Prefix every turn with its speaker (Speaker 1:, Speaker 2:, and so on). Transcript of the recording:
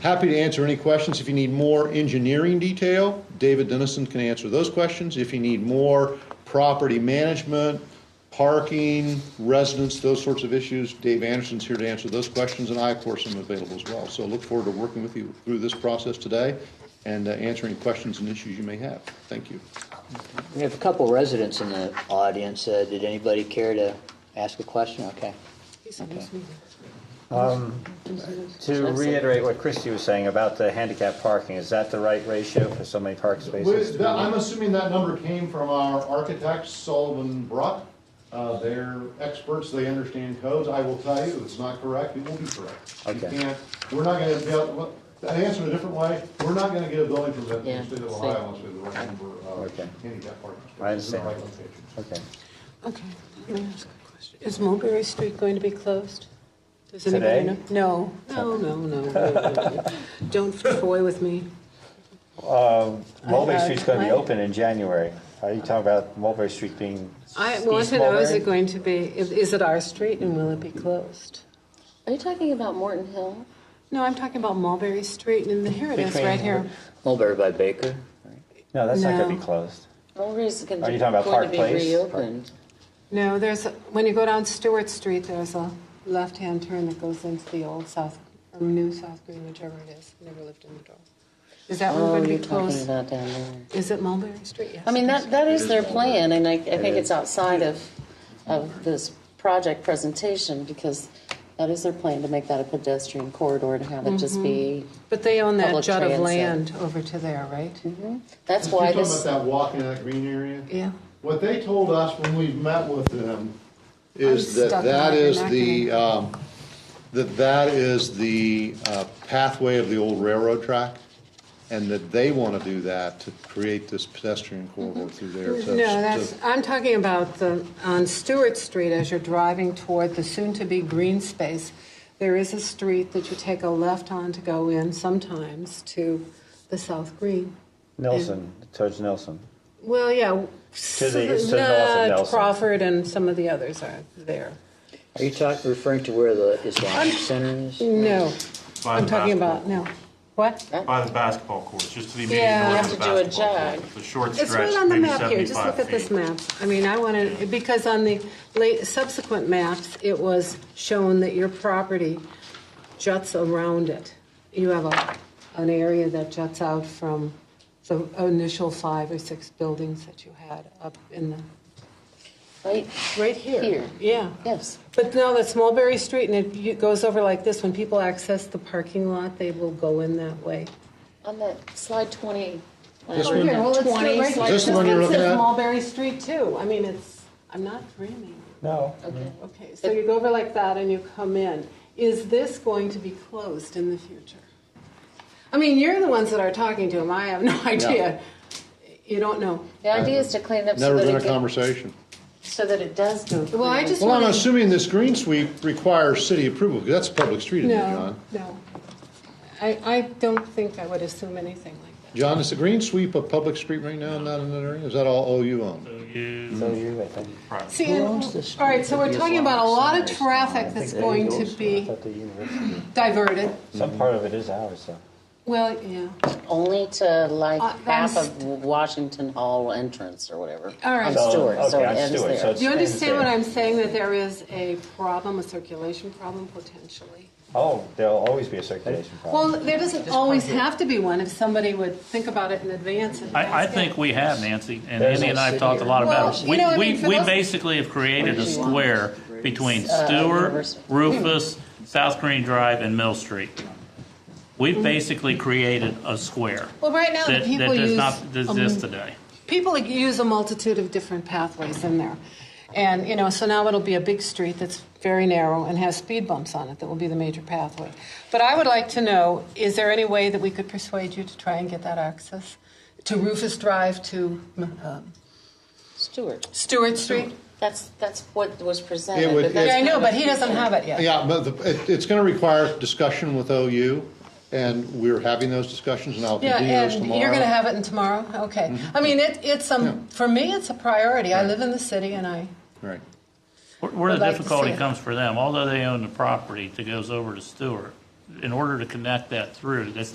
Speaker 1: Happy to answer any questions. If you need more engineering detail, David Dennison can answer those questions. If you need more property management, parking, residents, those sorts of issues, Dave Anderson's here to answer those questions, and I, of course, am available as well. So look forward to working with you through this process today and uh, answering questions and issues you may have. Thank you.
Speaker 2: We have a couple residents in the audience. Uh, Did anybody care to ask a question? Okay.
Speaker 3: To reiterate what Christie was saying about the handicap parking, is that the right ratio for so many parking spaces?
Speaker 1: Well, that- I'm assuming that number came from our architects, Sullivan Bruck. Uh, They're experts, they understand codes. I will tell you, if it's not correct, it will be correct. You
Speaker 3: Okay.
Speaker 1: can't, we're not gonna, be able- to answer it a different way, we're not gonna get a building permit in
Speaker 2: Yeah,
Speaker 1: the state of
Speaker 2: see.
Speaker 1: Ohio unless we have the right number of
Speaker 3: Okay.
Speaker 1: handicap parking spaces. in
Speaker 3: I
Speaker 1: the
Speaker 3: understand.
Speaker 1: right location.
Speaker 3: Okay.
Speaker 4: Okay, let me ask a question. Is Mulberry Street going to be closed? Does anybody
Speaker 3: Today?
Speaker 4: know? No, no, no, no, no, no. Don't toy with me.
Speaker 3: Mulberry
Speaker 4: I-
Speaker 3: Street's gonna be
Speaker 4: I-
Speaker 3: open in January. Are you talking about Mulberry Street being
Speaker 4: I
Speaker 3: East
Speaker 4: want to know, is it
Speaker 3: Mulberry?
Speaker 4: going to be, is is it our street and will it be closed?
Speaker 5: Are you talking about Morton Hill?
Speaker 4: No, I'm talking about Mulberry Street and here it is,
Speaker 3: Between
Speaker 4: right here.
Speaker 2: Mulberry by Baker?
Speaker 3: No, that's not gonna
Speaker 4: No.
Speaker 3: be closed.
Speaker 5: Mulberry's gonna-
Speaker 3: Are
Speaker 5: going
Speaker 3: you
Speaker 5: to,
Speaker 3: talking about Park
Speaker 5: be
Speaker 3: Place?
Speaker 5: reopened.
Speaker 4: No, there's, a- when you go down Stewart Street, there's a left-hand turn that goes into the old South, or New South Green, whichever it is. Never lived in the door. Is that one
Speaker 5: Oh,
Speaker 4: going to
Speaker 5: you're
Speaker 4: be
Speaker 5: talking
Speaker 4: closed?
Speaker 5: about down there.
Speaker 4: Is it Mulberry Street? Yes.
Speaker 5: I mean, that, that is their plan, and I, I think it's outside of, of this project presentation, because that is their plan, to make that a pedestrian corridor and have it just be,
Speaker 4: But they own that
Speaker 5: Public
Speaker 4: jut of
Speaker 5: transit.
Speaker 4: land
Speaker 5: Mm-hmm.
Speaker 4: over to there, right?
Speaker 5: that's
Speaker 1: You're
Speaker 5: why
Speaker 1: talking
Speaker 5: this,
Speaker 1: about that walk in that green area?
Speaker 4: Yeah.
Speaker 1: What they told us when we met with them
Speaker 4: I'm
Speaker 1: is that
Speaker 4: stuck in
Speaker 1: that
Speaker 4: my
Speaker 1: is
Speaker 4: vernacular.
Speaker 1: the, um, that that is the uh, pathway of the old railroad track, and that they want to do that to create this pedestrian corridor through there. to-
Speaker 4: Mm-hmm. No, that's,
Speaker 1: to-
Speaker 4: I'm talking about the, on Stewart Street, as you're driving toward the soon-to-be green space, there is a street that you take a left on to go in sometimes to the South Green.
Speaker 3: Nelson, towards Nelson.
Speaker 4: Well, yeah.
Speaker 3: To the- to the north of
Speaker 4: uh,
Speaker 3: Nelson.
Speaker 4: Crawford and some of the others are there.
Speaker 2: Are you talking, referring to where the Islamic Center is?
Speaker 4: No,
Speaker 6: By
Speaker 4: I'm
Speaker 6: the
Speaker 4: talking
Speaker 6: basketball-
Speaker 4: about, no. What?
Speaker 6: By the basketball courts, just to the immediate
Speaker 4: Yeah.
Speaker 6: north
Speaker 5: You
Speaker 6: of the
Speaker 5: have to do a
Speaker 6: basketball
Speaker 5: jog.
Speaker 6: court. The short
Speaker 4: It's
Speaker 6: stretch,
Speaker 4: right on the
Speaker 6: maybe
Speaker 4: map here, just look at
Speaker 6: 75
Speaker 4: this
Speaker 6: feet.
Speaker 4: map. I mean, I want to, because on the late subsequent maps, it was shown that your property juts around it. You have a, an area that juts out from the initial five or six buildings that you had up in the,
Speaker 5: right
Speaker 4: right here.
Speaker 5: Here.
Speaker 4: Yeah.
Speaker 5: Yes.
Speaker 4: But no, that's Mulberry Street, and it you- goes over like this. When people access the parking lot, they will go in that way.
Speaker 5: on that slide 20.
Speaker 1: This one? Here,
Speaker 4: well, it's still
Speaker 5: 20,
Speaker 4: right-
Speaker 5: slide
Speaker 1: Is this the one you're
Speaker 4: This
Speaker 1: looking
Speaker 4: is
Speaker 1: at?
Speaker 4: Mulberry Street, too. I mean, it's, I'm not dreaming.
Speaker 3: No.
Speaker 4: Okay, so you go over like that and you come in. Is this going to be closed in the future? I mean, you're the ones that are talking to him, I have no idea. You don't know.
Speaker 5: The idea is to clean it up so
Speaker 1: Never
Speaker 5: that
Speaker 1: been a
Speaker 5: it, get-
Speaker 1: conversation.
Speaker 5: so that it does go.
Speaker 4: Well, I just
Speaker 1: Well, I'm
Speaker 4: want to...
Speaker 1: assuming this green sweep requires city approval, because that's a public street, isn't it,
Speaker 4: No,
Speaker 1: John?
Speaker 4: no. I, I don't think I would assume anything like that.
Speaker 1: John, is the green sweep a public street right now, not in that area? Is that all OU owned?
Speaker 3: So you, I think.
Speaker 4: See,
Speaker 2: Who
Speaker 4: and-
Speaker 2: owns this
Speaker 4: all right, so
Speaker 2: street?
Speaker 4: we're
Speaker 2: Could be
Speaker 4: talking
Speaker 2: as
Speaker 4: about a
Speaker 2: long
Speaker 4: lot
Speaker 2: as
Speaker 4: of
Speaker 2: somebody's
Speaker 4: traffic that's going to
Speaker 3: I
Speaker 4: be
Speaker 3: thought the university-
Speaker 4: diverted.
Speaker 3: Some part of it is ours, though.
Speaker 4: Well, yeah.
Speaker 5: Only to like
Speaker 4: Uh,
Speaker 5: half
Speaker 4: that's-
Speaker 5: of Washington Hall entrance or whatever.
Speaker 4: All right.
Speaker 5: On
Speaker 4: So,
Speaker 5: Stewart, so
Speaker 3: okay,
Speaker 5: it
Speaker 3: on
Speaker 5: ends
Speaker 3: Stewart,
Speaker 5: there.
Speaker 3: so it's-
Speaker 4: Do you understand what
Speaker 3: Understand.
Speaker 4: I'm saying, that there is a problem, a circulation problem potentially?
Speaker 3: Oh, there'll always be a circulation problem.
Speaker 4: Well, there doesn't always have to be one if somebody would think about it in advance. and
Speaker 7: I, I
Speaker 4: ask it.
Speaker 7: think we have, Nancy, and
Speaker 3: There's
Speaker 7: Andy and
Speaker 3: no
Speaker 7: I have talked a lot
Speaker 4: Well,
Speaker 7: about it.
Speaker 4: you
Speaker 7: We,
Speaker 4: know, I
Speaker 7: we,
Speaker 4: mean, for
Speaker 7: we
Speaker 4: those-
Speaker 7: basically have created a square between
Speaker 4: Uh,
Speaker 7: Stewart,
Speaker 5: University.
Speaker 7: Rufus, South Green Drive, and Mill Street. We've basically created a square
Speaker 4: Well, right Mm-hmm. now, the
Speaker 7: that, that
Speaker 4: people
Speaker 7: does
Speaker 4: use,
Speaker 7: not exist
Speaker 4: um,
Speaker 7: today.
Speaker 4: people use a multitude of different pathways in there. And, you know, so now it'll be a big street that's very narrow and has speed bumps on it that will be the major pathway. But I would like to know, is there any way that we could persuade you to try and get that access? To Rufus Drive, to um,
Speaker 5: Stewart.
Speaker 4: Stewart Street?
Speaker 5: That's, that's what was presented.
Speaker 1: It would-
Speaker 5: but
Speaker 1: it-
Speaker 5: that's
Speaker 4: Yeah, I know,
Speaker 5: kind
Speaker 4: but
Speaker 5: of-
Speaker 4: he doesn't have it yet.
Speaker 1: Yeah, but the- it- it's going to require discussion with OU, and we're having those discussions, and I'll
Speaker 4: Yeah,
Speaker 1: continue those
Speaker 4: and
Speaker 1: tomorrow. Mm-hmm.
Speaker 4: you're going to have it in tomorrow? Okay. I mean, it, it's, um, for me, it's a priority. I live in the city and I,
Speaker 1: Right.
Speaker 7: Where- Where
Speaker 4: I'd
Speaker 7: the
Speaker 4: like to see
Speaker 7: difficulty
Speaker 4: it.
Speaker 7: comes for them, although they own the property that goes over to Stewart, in order to connect that through, that's